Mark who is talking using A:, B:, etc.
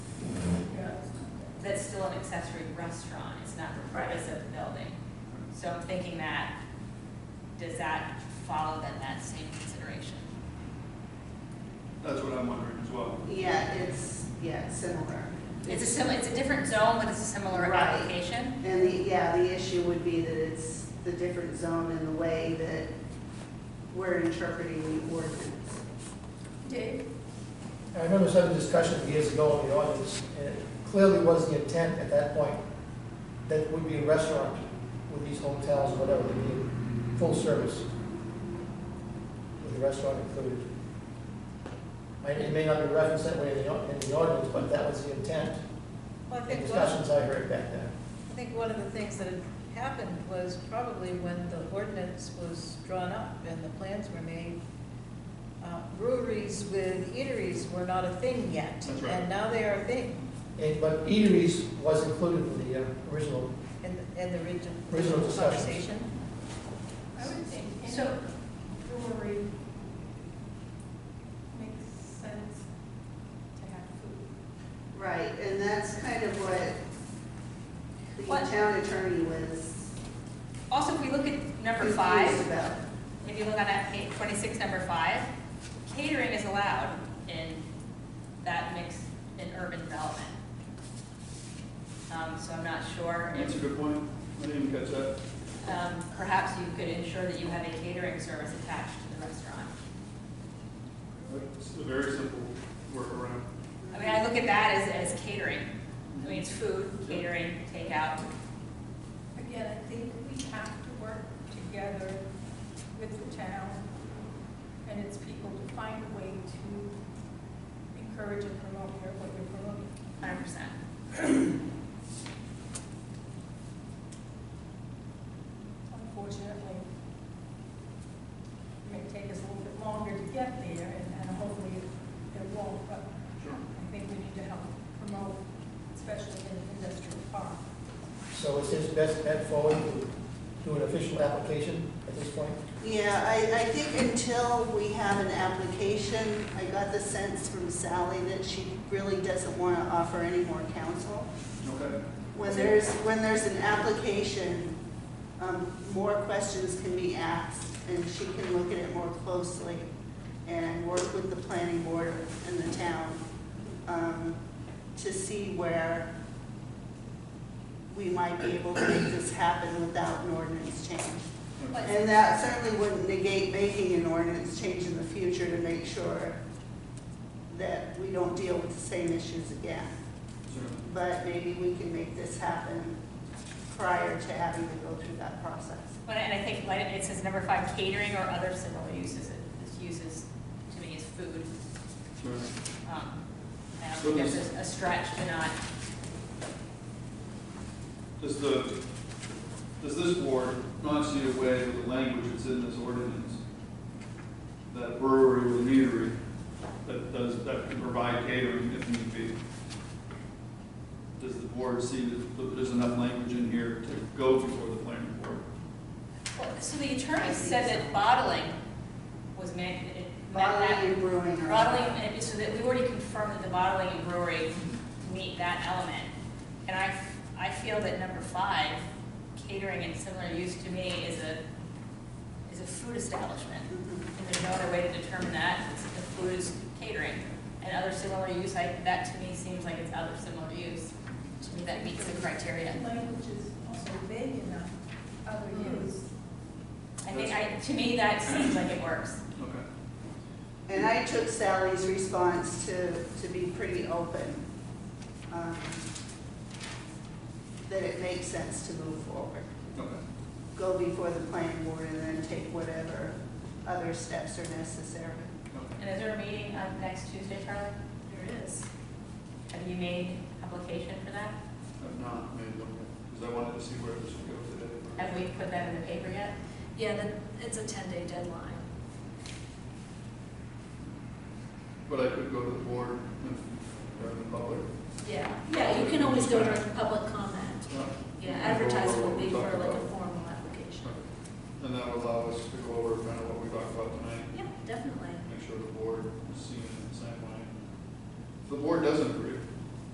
A: that's still an accessory restaurant, it's not the purpose of the building. So I'm thinking that, does that follow then that same consideration?
B: That's what I'm wondering as well.
C: Yeah, it's, yeah, it's similar.
A: It's a similar, it's a different zone, but it's a similar
C: Right.
A: application?
C: And the, yeah, the issue would be that it's the different zone and the way that we're interpreting the ordinance.
A: Dave?
D: I remember some discussion years ago in the audience, and it clearly was the intent at that point that it would be a restaurant with these hotels or whatever, to be full service with a restaurant included. I- It may not be referenced that way in the, au- in the audience, but that was the intent,
E: Well, I
D: the
E: think one, I
D: discussions I heard back then.
E: think one of the things that had happened was probably when the ordinance was drawn up and the plans were made, uh, breweries with eateries were not a thing yet.
B: That's right.
E: And now they are a thing
D: And, but eateries was included in the uh, original,
E: in, in the region.
D: Original discussions.
E: Conversation.
F: I would think any
A: So-
F: brewery makes sense to have food.
C: Right, and that's kind of what
A: What-
C: the town attorney was
A: Also, if we look at number five,
C: confused about.
A: If you look on that page, twenty-six, number five, catering is allowed in that mixed, in urban development. Um, so I'm not sure
B: That's a
A: if,
B: good point. I didn't even catch that.
A: um, perhaps you could ensure that you have a catering service attached to the restaurant.
B: It's a very simple workaround.
A: I mean, I look at that as, as catering. I mean, it's food, catering, takeout.
F: Again, I think we have to work together with the town and its people to find a way to encourage and promote what you're promoting.
A: Hundred percent.
F: Unfortunately, it may take us a little bit longer to get there, and- and hopefully it- it won't, but
B: Sure.
F: I think we need to help promote, especially in the industrial park.
D: so it's his best bet forward to do an official application at this point.
C: Yeah, I, I think until we have an application, I got the sense from Sally that she really doesn't want to offer any more counsel.
B: Okay.
C: When there's, when there's an application, um, more questions can be asked, and she can look at it more closely and work with the planning board and the town, um, to see where we might be able to make this happen without an ordinance change.
B: Okay.
C: And that certainly wouldn't negate making an ordinance change in the future to make sure that we don't deal with the same issues again.
B: Sure.
C: But maybe we can make this happen prior to having to go through that process.
A: But, and I think, like, it says number five, catering or other similar uses, It- uses, to me, is food.
B: Sure.
A: Um, I don't think there's a- a stretch to not
B: Does the, does this board not see a way with the language that's in this ordinance? That brewery with an eatery that does, that can provide catering if need be? Does the board see that that there's enough language in here to go before the planning board?
A: Well, So the attorney said that bottling was man, it- that-
C: Bottling
A: that-
C: and brewing are.
A: bottling, and it- so that we already confirmed that the bottling and brewery meet that element. And I, f- I feel that number five, catering and similar use to me is a, is a food establishment.
C: Mhm.
A: And there's no other way to determine that, it's the food is catering. And other similar use, I, that to me seems like it's other similar use. To me, that meets the criteria.
F: Language is also vague enough, other
G: Mm-hmm.
F: use.
A: I think, I, to me, that seems like it works.
B: Okay.
C: And I took Sally's response to, to be pretty open, um, that it makes sense to move forward.
B: Okay.
C: go before the planning board and then take whatever other steps are necessary.
B: Okay.
A: And is there a meeting um, next Tuesday, Charlie?
F: There is.
A: Have you made application for that?
B: I've not made them, because I wanted to see where this would go today.
A: Have we put that in the paper yet?
G: Yeah, then it's a ten-day deadline.
B: But I could go to the board and, or the public.
G: Yeah. Yeah, you can always go during public comment.
B: Yeah.
G: Yeah, advertising will be for
B: Talk
G: like a
B: about-
G: formal application.
B: And that would allow us to go over kind of what we talked about tonight,
G: Yeah, definitely.
B: make sure the board is seeing it the same way. If the board doesn't agree,